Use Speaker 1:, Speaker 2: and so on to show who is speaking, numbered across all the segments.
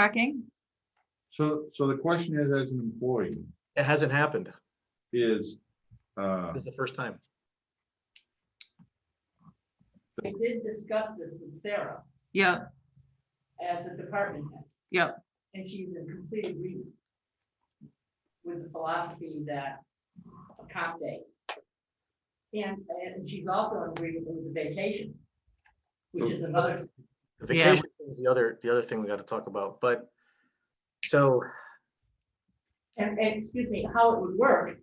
Speaker 1: tracking?
Speaker 2: So, so the question is, as an employee,
Speaker 3: It hasn't happened.
Speaker 2: is, uh,
Speaker 3: This is the first time.
Speaker 4: We did discuss this with Sarah
Speaker 1: Yeah,
Speaker 4: as a department head.
Speaker 1: Yep.
Speaker 4: And she's in complete agreement with the philosophy that a comp day. And, and she's also in agreement with the vacation, which is another,
Speaker 3: The
Speaker 1: Yeah.
Speaker 3: Vacation is the other, the other thing we got to talk about, but so
Speaker 4: and, and excuse me, how it would work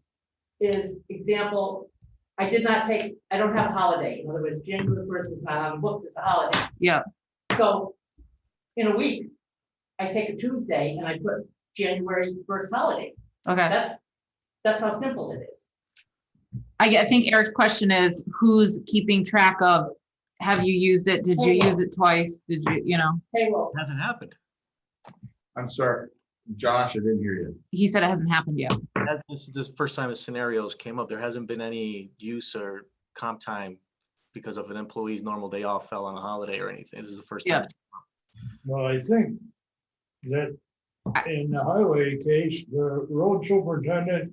Speaker 4: is example, I did not take, I don't have a holiday. In other words, January first is not on the books, it's a holiday.
Speaker 1: yeah,
Speaker 4: So in a week, I take a Tuesday and I put January first holiday.
Speaker 1: okay.
Speaker 4: That's, that's how simple it is.
Speaker 1: I, get- I think Eric's question is, who's keeping track of, have you used it? Did you use it twice? Did you, you know?
Speaker 4: Payroll,
Speaker 3: it hasn't happened.
Speaker 2: I'm sorry, Josh, I didn't hear you.
Speaker 1: He said it hasn't happened yet.
Speaker 3: That's- This is the first time the scenarios came up. There hasn't been any use or comp time because of an employee's normal day off fell on a holiday or anything. This is the first
Speaker 1: Yeah.
Speaker 3: time.
Speaker 5: Well, I think that in the highway case, the road superintendent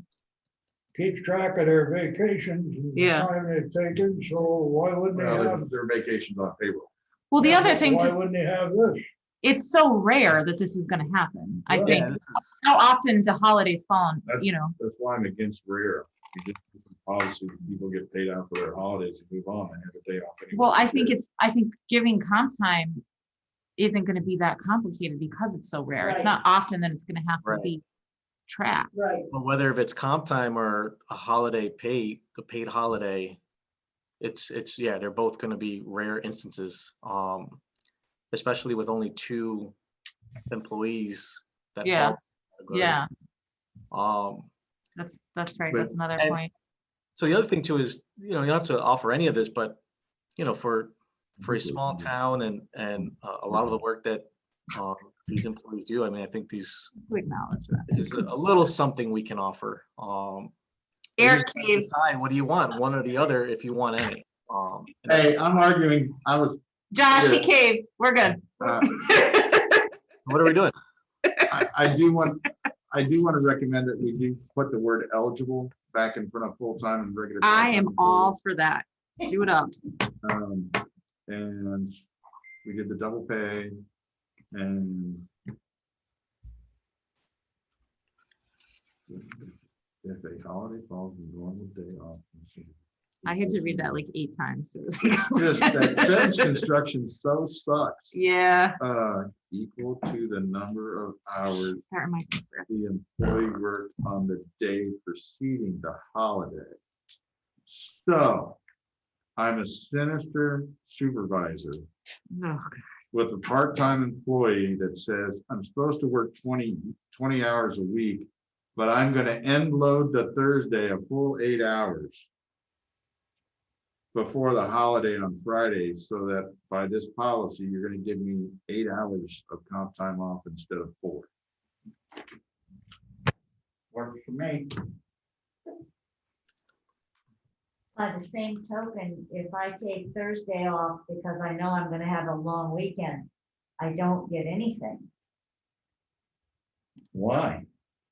Speaker 5: keeps track of their vacations and the
Speaker 1: Yeah.
Speaker 5: time they've taken, so why wouldn't
Speaker 2: Well,
Speaker 5: they have?
Speaker 2: their- Their vacation's on payroll.
Speaker 1: Well, the other thing,
Speaker 5: Why
Speaker 1: to-
Speaker 5: wouldn't they have this?
Speaker 1: it's so rare that this is gonna happen, I
Speaker 5: Yeah.
Speaker 1: think.
Speaker 3: Yeah, this is-
Speaker 1: How often do holidays fall on, you know?
Speaker 2: That's why I'm against rare. Policy, people get paid out for their holidays and move on and have a day off. anyway.
Speaker 1: Well, I think it's, I think giving comp time isn't gonna be that complicated because it's so rare. It's
Speaker 4: Right.
Speaker 1: not often that it's gonna have to
Speaker 3: Right.
Speaker 1: be tracked.
Speaker 4: right,
Speaker 3: But whether if it's comp time or a holiday pay, the paid holiday, it's, it's, yeah, they're both gonna be rare instances. Um, especially with only two employees. that
Speaker 1: Yeah,
Speaker 3: fall in the
Speaker 1: Yeah,
Speaker 3: category. Um,
Speaker 1: that's, that's right.
Speaker 3: But-
Speaker 1: That's another
Speaker 3: and-
Speaker 1: point.
Speaker 3: so the other thing too is, you know, you don't have to offer any of this, but, you know, for, for a small
Speaker 2: Mhm.
Speaker 3: town and, and uh, a lot of the work that, um, these employees do, I mean, I think these,
Speaker 1: We acknowledge that.
Speaker 3: this is a little something we can offer, um. you
Speaker 1: Eric
Speaker 3: just gotta
Speaker 1: gave,
Speaker 3: Decide what do you want, one or the other, if you want any. Um, and that's
Speaker 2: Hey, I'm arguing, I was,
Speaker 1: Josh, he
Speaker 2: Yeah.
Speaker 1: caved. We're good.
Speaker 2: uh,
Speaker 3: What are we doing?
Speaker 2: I, I do want, I do want to recommend that we do put the word eligible back in front of full-time and regular.
Speaker 1: I am
Speaker 2: part-time
Speaker 1: all for that. Do it up.
Speaker 2: Um, and we did the double pay and. If a holiday falls on a normal day off.
Speaker 1: I had to read that like eight times. It was
Speaker 2: Just that sentence
Speaker 1: like-
Speaker 2: construction so sucks.
Speaker 1: Yeah,
Speaker 2: Uh, equal to the number of hours
Speaker 1: that reminds me. Brett.
Speaker 2: the employee worked on the day preceding the holiday. So I'm a sinister supervisor
Speaker 1: Ugh.
Speaker 2: with a part-time employee that says, I'm supposed to work 20 20 hours a week, but I'm gonna end load the Thursday a full eight hours before the holiday on Friday, so that by this policy, you're gonna give me eight hours of comp time off instead of four. Works for me.
Speaker 6: By the same token, if I take Thursday off because I know I'm gonna have a long weekend, I don't get anything.
Speaker 2: Why?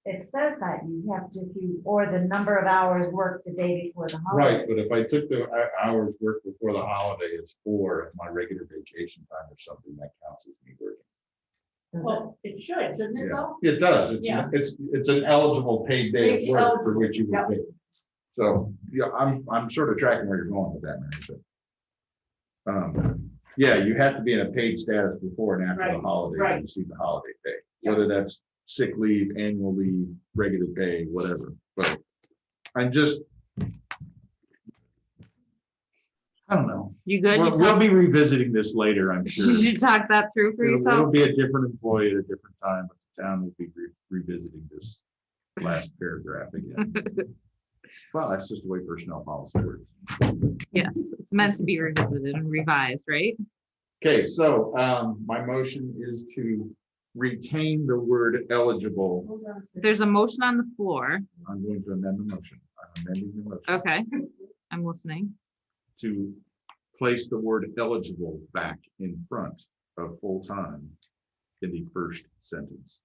Speaker 6: It says that you have to, do or the number of hours worked the day before the holiday.
Speaker 2: Right, but if I took the hou- hours worked before the holiday is four, and my regular vacation time or something, that counts as me working.
Speaker 6: Does it-
Speaker 4: well, it should, shouldn't it though?
Speaker 2: It does. It's,
Speaker 4: Yeah.
Speaker 2: it's, it's an eligible paid day of
Speaker 4: It's
Speaker 2: work for
Speaker 4: eligible,
Speaker 2: which you would
Speaker 4: yep.
Speaker 2: pay. So, yeah, I'm, I'm sort of tracking where you're going with that, Mary. but, um, Yeah, you have to be in a paid status before and after the
Speaker 4: Right,
Speaker 2: holiday,
Speaker 4: right.
Speaker 2: to receive the holiday pay,
Speaker 4: Yeah.
Speaker 2: whether that's sick leave, annual leave, regular pay, whatever, but I'm just. I don't know.
Speaker 1: You good? You
Speaker 2: We'll we'll
Speaker 1: talked,
Speaker 2: be revisiting this later, I'm sure.
Speaker 1: you talked that through for
Speaker 2: It'll- It'll
Speaker 1: yourself?
Speaker 2: be a different employee at a different time, but the town will be re- revisiting this last paragraph
Speaker 1: Mm-hmm.
Speaker 2: again. Well, that's just the way personnel policy works.
Speaker 1: Yes, it's meant to be revisited and revised, right?
Speaker 2: Okay, so um, my motion is to retain the word eligible.
Speaker 4: Hold on.
Speaker 1: There's a motion on the floor.
Speaker 2: I'm going to amend the motion. I'm amending the motion
Speaker 1: Okay, I'm listening.
Speaker 2: to place the word eligible back in front of full-time in the first sentence.